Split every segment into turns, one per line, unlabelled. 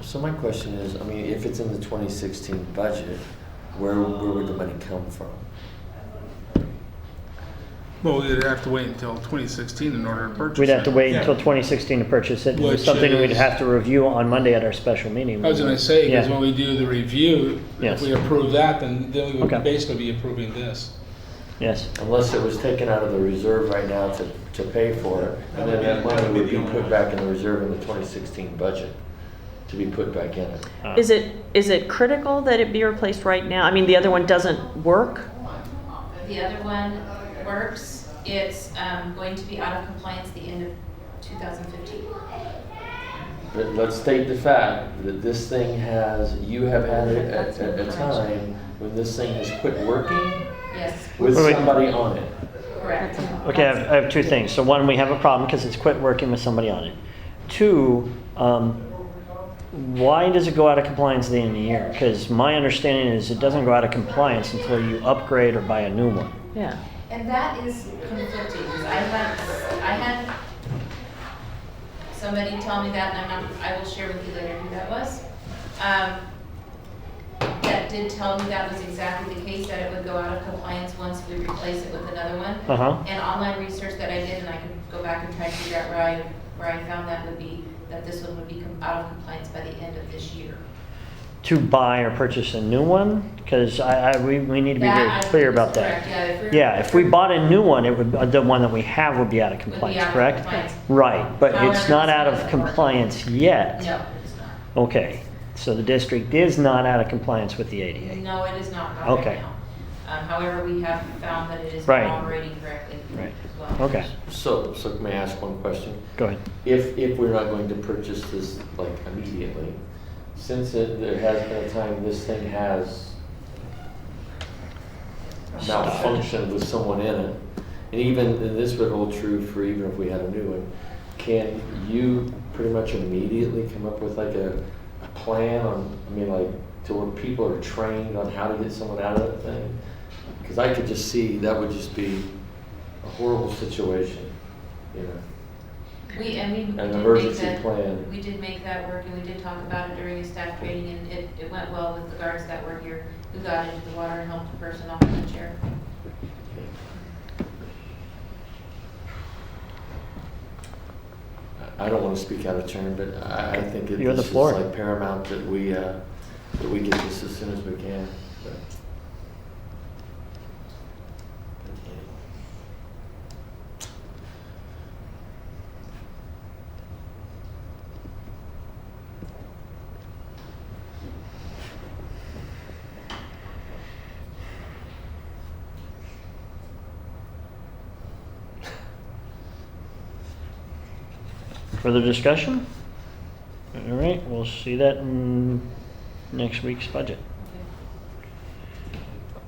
So my question is, I mean, if it's in the 2016 budget, where, where would the money come from?
Well, we'd have to wait until 2016 in order to purchase it.
We'd have to wait
Yeah.
until 2016 to purchase it. and
Which
It's something we'd
is-
have to review on Monday at our special meeting.
I was gonna say, because
Yeah.
when we do the review, if
Yes.
we approve that, then, then we
Okay.
would basically be approving this.
Yes,
Unless it was taken out of the reserve right now to, to pay for it, and then that money would be put back in the reserve in the 2016 budget, to be put back in it.
Is it, is it critical that it be replaced right now? I mean, the other one doesn't work.
The other one works. It's um, going to be out of compliance the end of 2015.
But let's state the fact that this thing has, you have had it at, at a time when this thing has quit working
Yes,
with
Wait, wait.
somebody on it.
correct.
Uh, okay, I have, I have two things. So one, we have a problem because it's quit working with somebody on it. Two, um, why does it go out of compliance at the end of the year? Because my understanding is it doesn't go out of compliance until you upgrade or buy a new one.
Yeah.
And that is conflicting. 'cause I had, I had somebody tell me that, and I'm not, I will share with you later who that was. Um, That did tell me that was exactly the case, that it would go out of compliance once we replace it with another one.
Uh-huh.
And online research that I did, and I can go back and try to figure out where I, where I found that would be, that this one would be com- out of compliance by the end of this year.
To buy or purchase a new one? Because I, I, we, we need to be
That
very
I think
clear
is
about
correct,
that.
Yeah, if we're.
Yeah, if we bought a new one, it would, uh, the one that we have would be out of
Would be
compliance,
out of
correct?
compliance.
Right, but it's
However,
not
it's
out
not
of
working.
compliance yet.
No, it's not.
Okay, so the district is not out of compliance with the ADA.
No, it is not right
Okay.
now. Um, However, we have found that it is
Right.
operating correctly
Right.
as well.
Okay,
So, so may I ask one question?
go ahead.
If, if we're not going to purchase this like immediately, since it, there has been a time this thing has malfunctioned with someone in it, and even, and this would hold true for even if we had a new one, can you pretty much immediately come up with like a, a plan on, I mean, like, to where people are trained on how to get someone out of that thing? Because I could just see, that would just be a horrible situation, you know?
We, and we. we
An
did make
emergency
that-
plan.
We did make that work and we did talk about it during a staff training and it, it went well with the guards that were here who got into the water and helped the person off the chair.
I I don't want to speak out of turn, but I, I think it
You have the
this is
floor.
like paramount that we, uh, that we get this as soon as we can. but-
Further discussion? All right, we'll see that in next week's budget.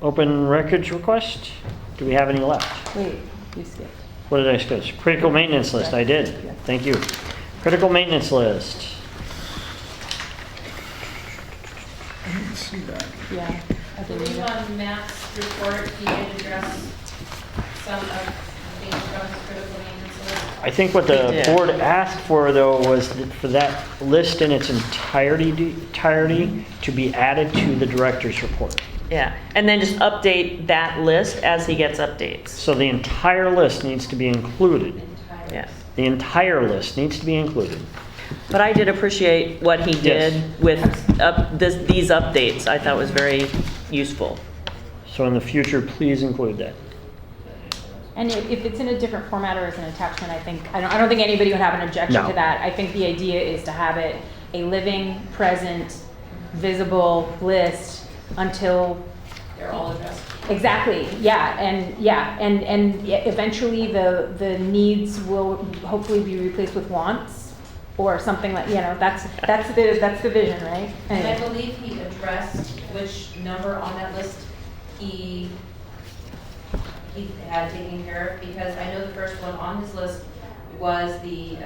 Open records request? Do we have any left?
Wait, you skipped.
What did I skip? Critical maintenance list, I did. Thank you. Critical maintenance list.
See that.
Yeah.
The new on Matt's report, he did address some of the things from his critical maintenance list.
I think what the
We did.
board asked for, though, was th- for that list in its entirety, entirety to be added to the director's report.
Yeah, and then just update that list as he gets updates.
So the entire list needs to be included.
Entire.
Yeah.
The entire list needs to be included.
But I did appreciate what he did with up, this, these updates. I thought was very useful.
So in the future, please include that.
And i- if it's in a different format or as an attachment, I think, I don't, I don't think anybody would have an objection
No.
to that. I think the idea is to have it a living, present, visible list until,
They're all addressed.
exactly, yeah, and, yeah, and, and e- eventually the, the needs will hopefully be replaced with wants or something like, you know, that's, that's the, that's the vision, right?
And I
Anyway.
believe he addressed which number on that list he, he had taken care of, because I know the first one on his list was the uh,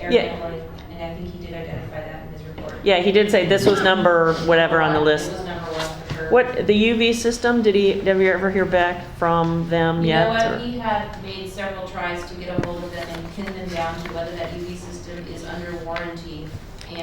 air
Yeah.
handling, and I think he did identify that in his report.
Yeah, he did say this was number whatever on the list.
It was number one for sure.
What the UV system? Did he? Did we ever hear back from them
You
yet?
know
or-
what, he had E made several tries to get a hold of them and pin them down to whether that UV system is under warranty